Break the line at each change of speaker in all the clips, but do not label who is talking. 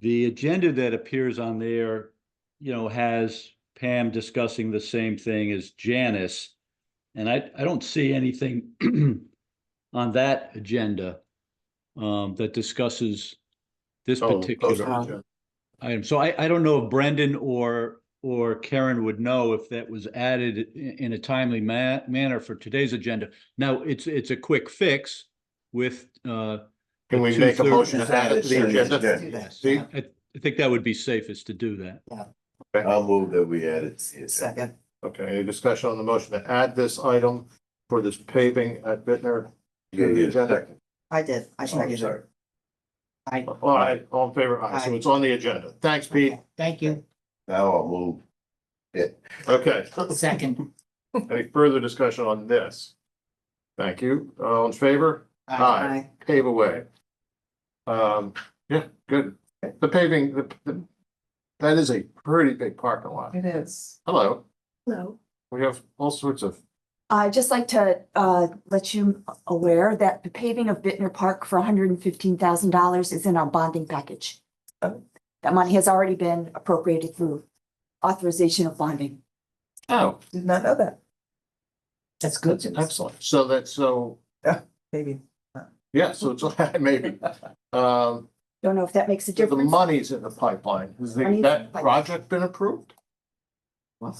the agenda that appears on there, you know, has Pam discussing the same thing as Janice. And I, I don't see anything on that agenda um, that discusses this
Oh,
particular
okay.
item. So I, I don't know if Brendan or, or Karen would know if that was added i- in a timely ma- manner for today's agenda. Now, it's, it's a quick fix with, uh,
Can we make a
Two-thirds-
motion to add it to
Sure,
the
yes,
agenda?
let's do that.
See?
I, I think that would be safest to do that.
I'll move that we add it.
Second,
Okay, any discussion on the motion to add this item for this paving at Bittner?
Yeah, yeah, second.
I did, I
Oh, I'm
seconded it.
sorry.
I,
All right, all in favor, aye, so it's on the agenda. Thanks, Pete.
okay, thank you,
Now I'll move.
Okay,
second.
any further discussion on this? Thank you. All in favor? Aye. Pave away. Um, yeah, good. The paving, the, the, that is a pretty big parking lot.
It is.
Hello,
Hello.
we have all sorts of,
I'd just like to uh, let you aware that the paving of Bittner Park for hundred and fifteen thousand dollars is in our bonding package.
Oh.
That money has already been appropriated through authorization of bonding.
oh,
Did not know that. That's good to know,
excellent. So that's so,
maybe.
yeah, so it's, maybe. Um,
Don't know if that makes a
The
difference.
money's in the pipeline. Has the-
Money's in the
that
pipeline.
project been approved?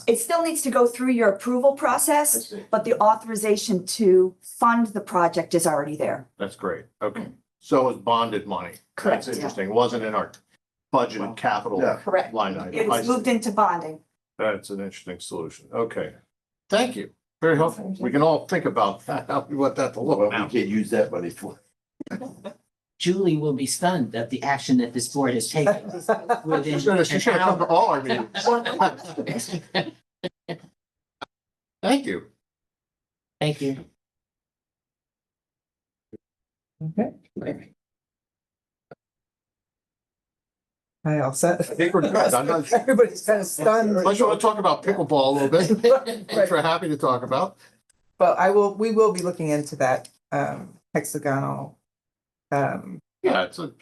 It still needs to go through your approval process, but the authorization to fund the project is already there.
That's great. Okay. So is bonded money. That's
Yeah.
interesting. It wasn't in our budget and capital
Yeah.
Correct.
line item.
It
I
was
see.
moved into bonding.
That's an interesting solution. Okay. Thank you. Very helpful. We can all think about that, how we want that to
Well,
look
we
now.
can't use that money for.
Julie will be stunned at the action that this board has taken
She
within
should have she should
an
have come to
hour.
all our meetings. Thank you.
Thank you.
I all
I
set.
think we're good. I'm not-
Everybody's kind of stunned.
Unless you want to talk about pickleball a little bit, which we're happy to talk about.
But I will, we will be looking into that um hexagonal. Um
Yeah, it's a,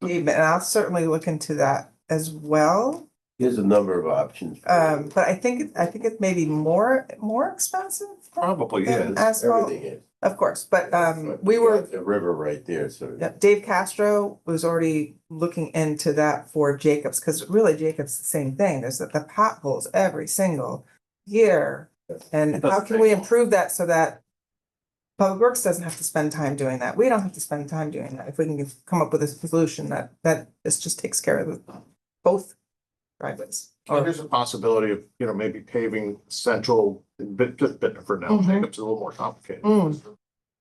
pavement, and I'll certainly look into that as well.
Here's a number of options. for
Um, but I think, it- I think it may be more, more expensive.
probably
it. Yeah,
is.
and asphalt,
everything is.
Of course, but um
But
we
you
were
got The river right there, so.
Yeah, Dave Castro was already looking into that for Jacobs, because really Jacobs, the same thing, there's the the potholes every single year. And how can we improve that so that Public Works doesn't have to spend time doing that, we don't have to spend time doing that, if we can come up with a solution that, that this just takes care of the- both driveways.
Well,
Or,
There's a possibility of, you know, maybe paving central, bit, just bit for now,
Mhm.
Jacob's a little more complicated.
Mm.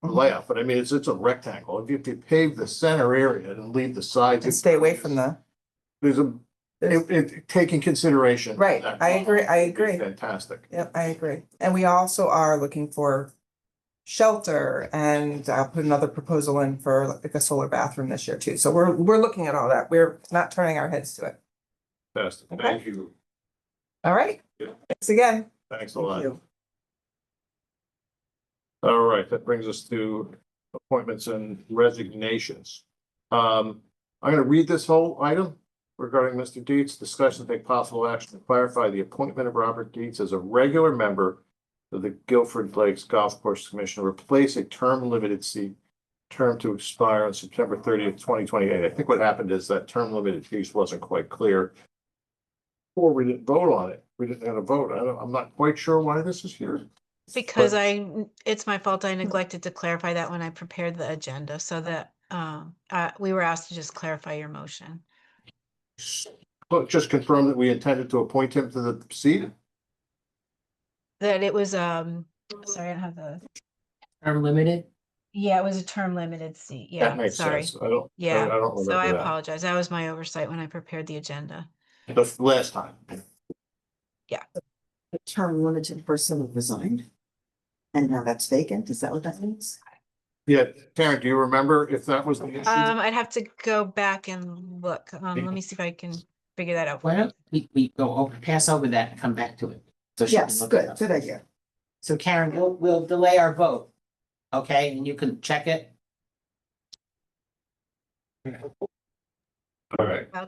Layout, but I mean, it's, it's a rectangle. If you- If you pave the center area and leave the sides.
and stay away from the,
There's a, it, it, taking consideration.
Right,
that
I agree, I
would be
agree.
Fantastic.
Yep, I agree. And we also are looking for shelter and I'll put another proposal in for like a solar bathroom this year too. So we're, we're looking at all that. We're not turning our heads to it.
Fantastic.
Okay.
Thank you.
All right.
Yeah.
Thanks again.
Thanks a
Thank
lot.
you.
All right, that brings us to appointments and resignations. Um, I'm gonna read this whole item regarding Mr. Dietz, discussion, to take possible action to clarify the appointment of Robert Dietz as a regular member of the Guilford Lakes Golf Course Commission, replace a term limited seat, term to expire on September thirtieth, twenty twenty-eight. I think what happened is that term limited piece wasn't quite clear. Or we didn't vote on it. We didn't have a vote. I don't, I'm not quite sure why this is here.
Because I, n- it's my fault, I
Hmm.
neglected to clarify that when I prepared the agenda, so that, um, uh, we were asked to just clarify your motion.
Well, just confirm that we intended to appoint him to the seat.
That it was, um, sorry, I don't have the,
Term limited?
yeah, it was a term limited seat,
That
yeah,
makes
sorry.
sense. I don't, I
Yeah,
I don't
So I
remember
apologize, that was my oversight when I prepared the agenda.
that. The f- last time.
term limited person resigned. And now that's vacant, is that what that means?
Yeah, Karen, do you remember if that was the issue?
Um, I'd have to go back and look, um, let me see if I can figure that out. for
Why
you.
don't we, we go over, pass over that and come back to it? So she can
Yes,
look it
good,
up.
good idea.
So Karen, we'll, we'll delay our vote. Okay, and you can check it.
All right.